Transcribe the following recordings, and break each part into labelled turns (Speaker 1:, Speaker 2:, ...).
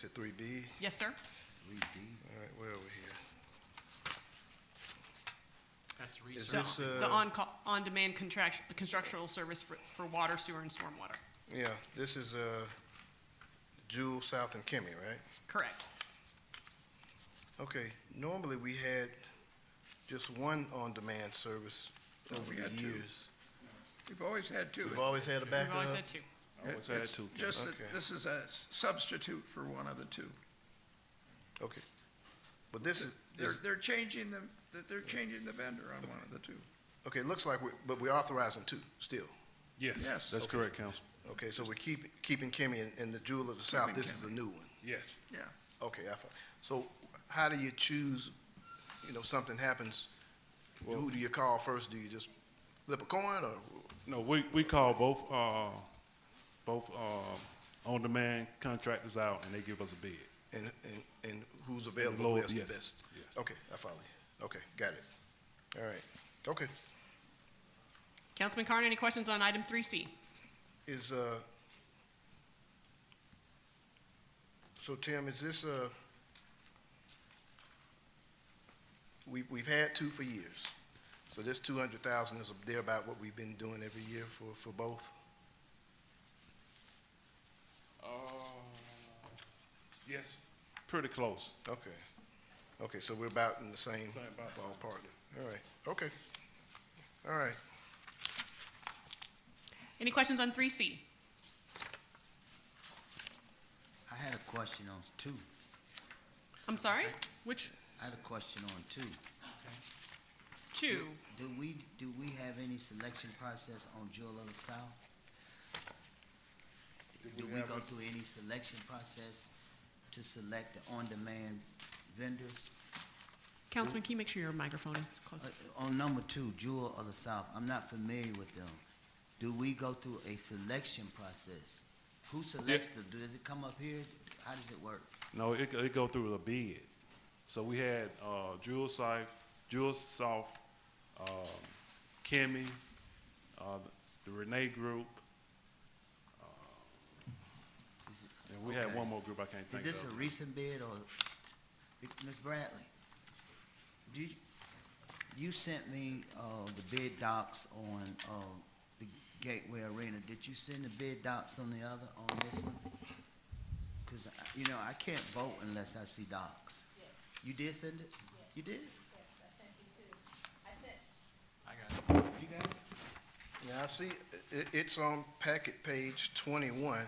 Speaker 1: to three B.
Speaker 2: Yes, sir.
Speaker 1: All right, where are we
Speaker 3: That's
Speaker 1: here? Is
Speaker 3: research.
Speaker 1: this,
Speaker 2: The
Speaker 1: uh,
Speaker 2: on, on-demand contract, constructional service for, for water, sewer, and stormwater.
Speaker 1: yeah, this is, uh, Jewel, South, and Kimmy, right?
Speaker 2: Correct.
Speaker 1: Okay, normally we had just one on-demand service
Speaker 4: No,
Speaker 1: over
Speaker 4: Oh, we
Speaker 1: the
Speaker 4: got two.
Speaker 1: years.
Speaker 4: We've always had two.
Speaker 1: We've always had a
Speaker 2: We've
Speaker 1: backup.
Speaker 2: always had two.
Speaker 4: It's Just that
Speaker 1: Okay.
Speaker 4: this is a s- substitute for one of the two.
Speaker 1: Okay. But this is,
Speaker 4: They're,
Speaker 1: is-
Speaker 4: they're changing the, that they're changing the vendor on one of the two.
Speaker 1: okay, it looks like we, but we're authorizing two still.
Speaker 4: Yes.
Speaker 5: Yes, that's
Speaker 1: Okay.
Speaker 5: correct, Council.
Speaker 1: Okay, so we're keeping, keeping Kimmy and, and the Jewel of the South,
Speaker 4: Keeping
Speaker 1: this is a
Speaker 4: Kimmy.
Speaker 1: new one.
Speaker 5: Yes.
Speaker 4: Yeah,
Speaker 1: Okay, I follow. So how do you choose, you know, something happens, who do you call first? Do you just flip a coin or,
Speaker 5: No, we, we call both, uh, both, uh, on-demand contractors out and they give us a bid.
Speaker 1: and, and, and who's available,
Speaker 5: lower-
Speaker 1: who's the
Speaker 5: yes,
Speaker 1: best?
Speaker 5: yes.
Speaker 1: Okay, I follow you. Okay, got it. All right, okay.
Speaker 2: Councilman Carn, any questions on item three C?
Speaker 1: Is, uh, so Tim, is this, uh, we, we've had two for years. So this two hundred thousand is there about what we've been doing every year for, for both?
Speaker 5: Uh, yes. Pretty close.
Speaker 1: Okay. Okay, so we're about in the same
Speaker 5: Same about-
Speaker 1: ballpark. All right, okay. All right,
Speaker 2: Any questions on three C?
Speaker 6: I had a question on two.
Speaker 2: I'm sorry? Which,
Speaker 6: I had a question on two.
Speaker 2: two?
Speaker 6: Do we, do we have any selection process on Jewel of the South? Do we go through any selection process to select the on-demand vendors?
Speaker 2: Councilman, can you make sure your microphone is close?
Speaker 6: Uh, On number two, Jewel of the South, I'm not familiar with them. Do we go through a selection process? Who selects the, does it come up here? How does it work?
Speaker 5: No, it, go- it go through the bid. So we had, uh, Jewel South, Jewel South, um, Kimmy, uh, the Renee Group,
Speaker 6: Is it-
Speaker 5: and we had
Speaker 6: okay.
Speaker 5: one more group I can't think of.
Speaker 6: Is this a recent bid or, Ms. Bradley? Do you, you sent me, uh, the bid docs on, uh, the Gateway Arena. Did you send the bid docs on the other, on this one? Cause, I- you know, I can't vote unless I see docs. You did send it? You did?
Speaker 3: I got it.
Speaker 6: You got it?
Speaker 1: now I see, i- it's on packet page twenty-one,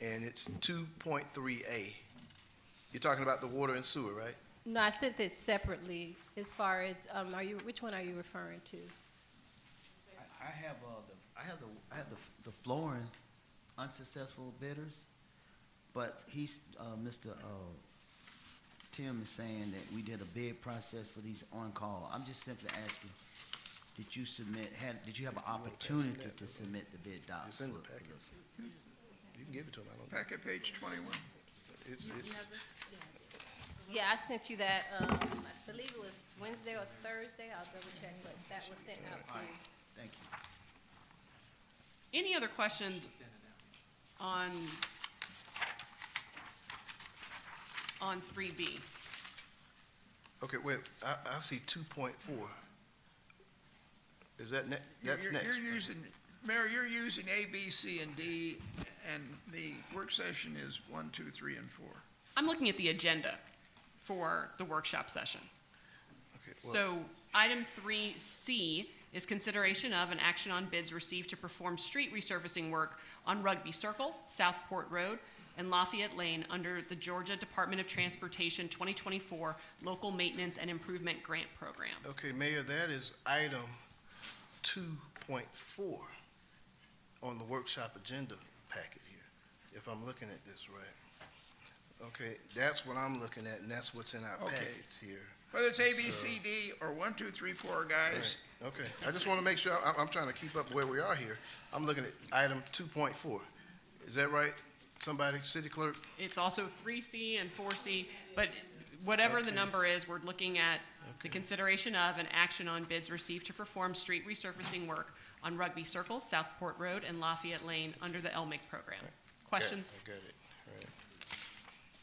Speaker 1: and it's two point three A. You're talking about the water and sewer, right?
Speaker 7: No, I sent this separately as far as, um, are you, which one are you referring to?
Speaker 6: I, I have, uh, the, I have the, I have the, the flooring unsuccessful bidders, but he's, uh, Mr., uh, Tim is saying that we did a bid process for these on-call. I'm just simply asking, did you submit, had, did you have an opportunity to submit the bid docs?
Speaker 1: It's in the
Speaker 6: for- for
Speaker 1: packet.
Speaker 6: this?
Speaker 1: You can give it to them, I don't,
Speaker 4: packet page twenty-one.
Speaker 1: it's, it's,
Speaker 7: Yeah, I sent you that, um, I believe it was Wednesday or Thursday, I'll double check, but that was sent out to you.
Speaker 6: Thank you.
Speaker 2: Any other questions on, on three B?
Speaker 1: okay, wait, I, I see two point four. Is that ne-
Speaker 4: You're-
Speaker 1: that's
Speaker 4: you're-
Speaker 1: next?
Speaker 4: You're using, Mayor, you're using A, B, C, and D, and the work session is one, two, three, and four.
Speaker 2: I'm looking at the agenda for the workshop session.
Speaker 1: Okay, well,
Speaker 2: So, item three C is consideration of an action on bids received to perform street resurfacing work on Rugby Circle, Southport Road, and Lafayette Lane under the Georgia Department of Transportation 2024 Local Maintenance and Improvement Grant Program.
Speaker 1: Okay, Mayor, that is item two point four on the workshop agenda packet here, if I'm looking at this right. Okay, that's what I'm looking at, and that's what's in our
Speaker 4: Okay.
Speaker 1: packets here.
Speaker 4: Whether it's A, B, C, D, or one, two, three, four, guys,
Speaker 1: Okay, I just want to make sure, I- I'm trying to keep up where we are here. I'm looking at item two point four. Is that right? Somebody, city clerk?
Speaker 2: It's also three C and four C, but whatever the
Speaker 1: Okay.
Speaker 2: number is, we're looking at the consideration of an action on bids received to perform street resurfacing work on Rugby Circle, Southport Road, and Lafayette Lane under the LMIC program. Questions?
Speaker 1: I got it.